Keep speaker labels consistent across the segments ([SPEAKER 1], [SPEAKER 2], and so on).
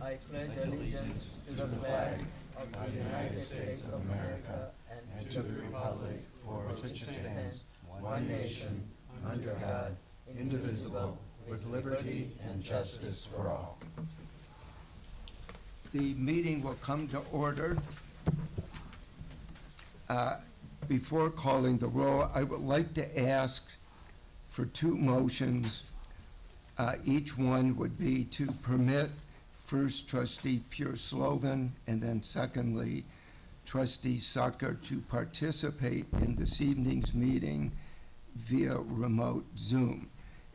[SPEAKER 1] I pledge allegiance to the flag of the United States of America and to the republic for which it stands, one nation, under God, indivisible, with liberty and justice for all.
[SPEAKER 2] The meeting will come to order. Uh, Before calling the roll, I would like to ask for two motions. Uh, Each one would be to permit first trustee Pure Slovan and then secondly trustee Sucker to participate in this evening's meeting via remote Zoom.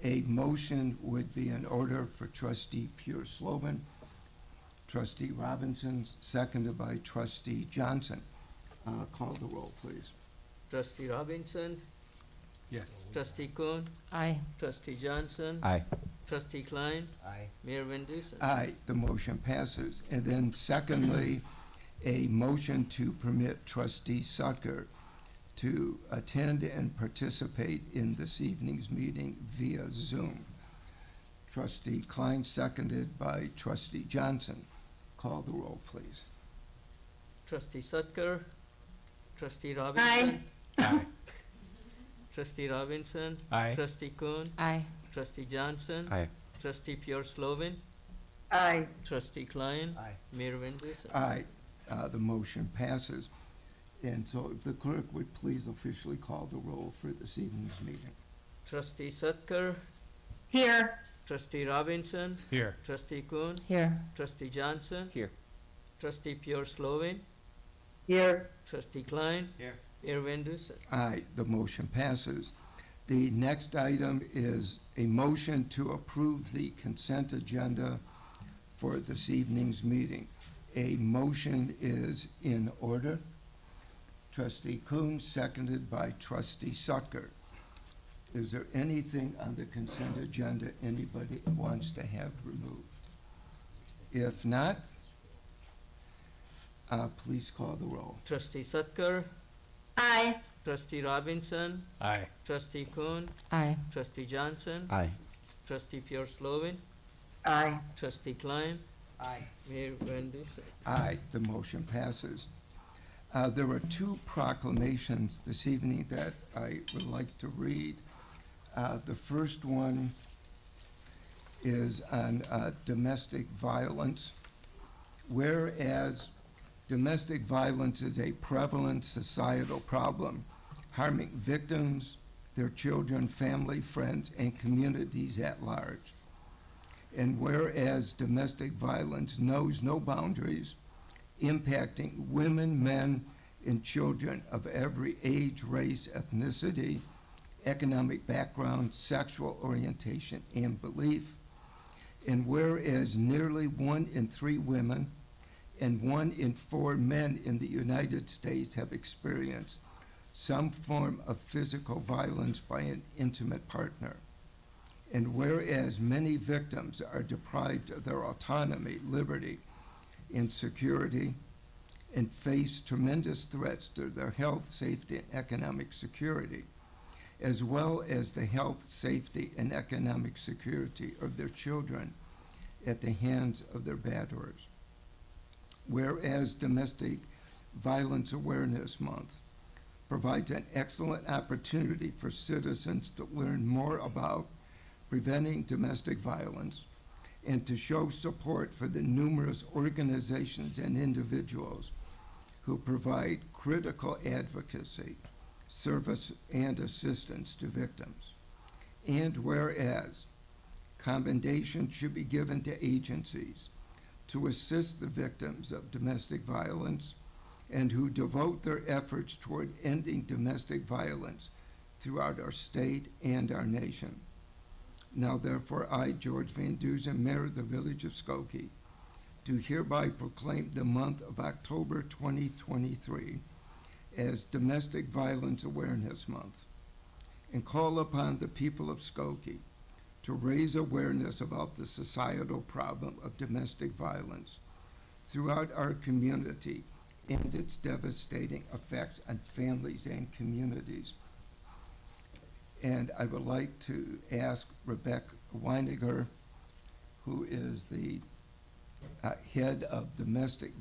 [SPEAKER 2] A motion would be in order for trustee Pure Slovan Trustee Robinson, seconded by trustee Johnson. Uh, Call the roll, please.
[SPEAKER 1] Trustee Robinson,
[SPEAKER 3] Yes.
[SPEAKER 1] trustee Kuhn,
[SPEAKER 4] Aye.
[SPEAKER 1] trustee Johnson,
[SPEAKER 3] Aye.
[SPEAKER 1] trustee Klein,
[SPEAKER 5] Aye.
[SPEAKER 1] Mayor Van Dusen.
[SPEAKER 2] Aye, the motion passes. And then secondly, a motion to permit trustee Sucker to attend and participate in this evening's meeting via Zoom. Trustee Klein, seconded by trustee Johnson. Call the roll, please.
[SPEAKER 1] Trustee Sutker, trustee Robinson. Trustee Robinson,
[SPEAKER 3] Aye.
[SPEAKER 1] trustee Kuhn,
[SPEAKER 4] Aye.
[SPEAKER 1] trustee Johnson,
[SPEAKER 3] Aye.
[SPEAKER 1] trustee Pure Slovan,
[SPEAKER 4] Aye.
[SPEAKER 1] trustee Klein,
[SPEAKER 5] Aye.
[SPEAKER 1] Mayor Van Dusen.
[SPEAKER 2] Aye, uh, the motion passes. And so if the clerk would please officially call the roll for this evening's meeting.
[SPEAKER 1] Trustee Sutker,
[SPEAKER 4] Here.
[SPEAKER 1] trustee Robinson,
[SPEAKER 3] Here.
[SPEAKER 1] trustee Kuhn,
[SPEAKER 4] Here.
[SPEAKER 1] trustee Johnson.
[SPEAKER 3] Here.
[SPEAKER 1] Trustee Pure Slovan,
[SPEAKER 4] Here.
[SPEAKER 1] trustee Klein.
[SPEAKER 5] Here.
[SPEAKER 1] Mayor Van Dusen.
[SPEAKER 2] Aye, the motion passes. The next item is a motion to approve the consent agenda for this evening's meeting. A motion is in order. Trustee Kuhn, seconded by trustee Sucker. Is there anything on the consent agenda anybody wants to have removed? If not, uh, please call the roll.
[SPEAKER 1] Trustee Sutker,
[SPEAKER 4] Aye.
[SPEAKER 1] trustee Robinson,
[SPEAKER 3] Aye.
[SPEAKER 1] trustee Kuhn,
[SPEAKER 4] Aye.
[SPEAKER 1] trustee Johnson,
[SPEAKER 3] Aye.
[SPEAKER 1] trustee Pure Slovan,
[SPEAKER 4] Aye.
[SPEAKER 1] trustee Klein,
[SPEAKER 5] Aye.
[SPEAKER 1] Mayor Van Dusen.
[SPEAKER 2] Aye, the motion passes. Uh, There are two proclamations this evening that I would like to read. Uh, The first one is on uh, domestic violence. Whereas domestic violence is a prevalent societal problem harming victims, their children, family, friends, and communities at large. And whereas domestic violence knows no boundaries, impacting women, men, and children of every age, race, ethnicity, economic background, sexual orientation, and belief. And whereas nearly one in three women and one in four men in the United States have experienced some form of physical violence by an intimate partner. And whereas many victims are deprived of their autonomy, liberty, and security, and face tremendous threats to their health, safety, and economic security, as well as the health, safety, and economic security of their children at the hands of their batterers. Whereas Domestic Violence Awareness Month provides an excellent opportunity for citizens to learn more about preventing domestic violence, and to show support for the numerous organizations and individuals who provide critical advocacy, service, and assistance to victims. And whereas commendation should be given to agencies to assist the victims of domestic violence and who devote their efforts toward ending domestic violence throughout our state and our nation. Now therefore, I, George Van Dusen, Mayor of the Village of Skokie, do hereby proclaim the month of October 2023 as Domestic Violence Awareness Month and call upon the people of Skokie to raise awareness about the societal problem of domestic violence throughout our community and its devastating effects on families and communities. And I would like to ask Rebecca Weiniger, who is the uh, Head of Domestic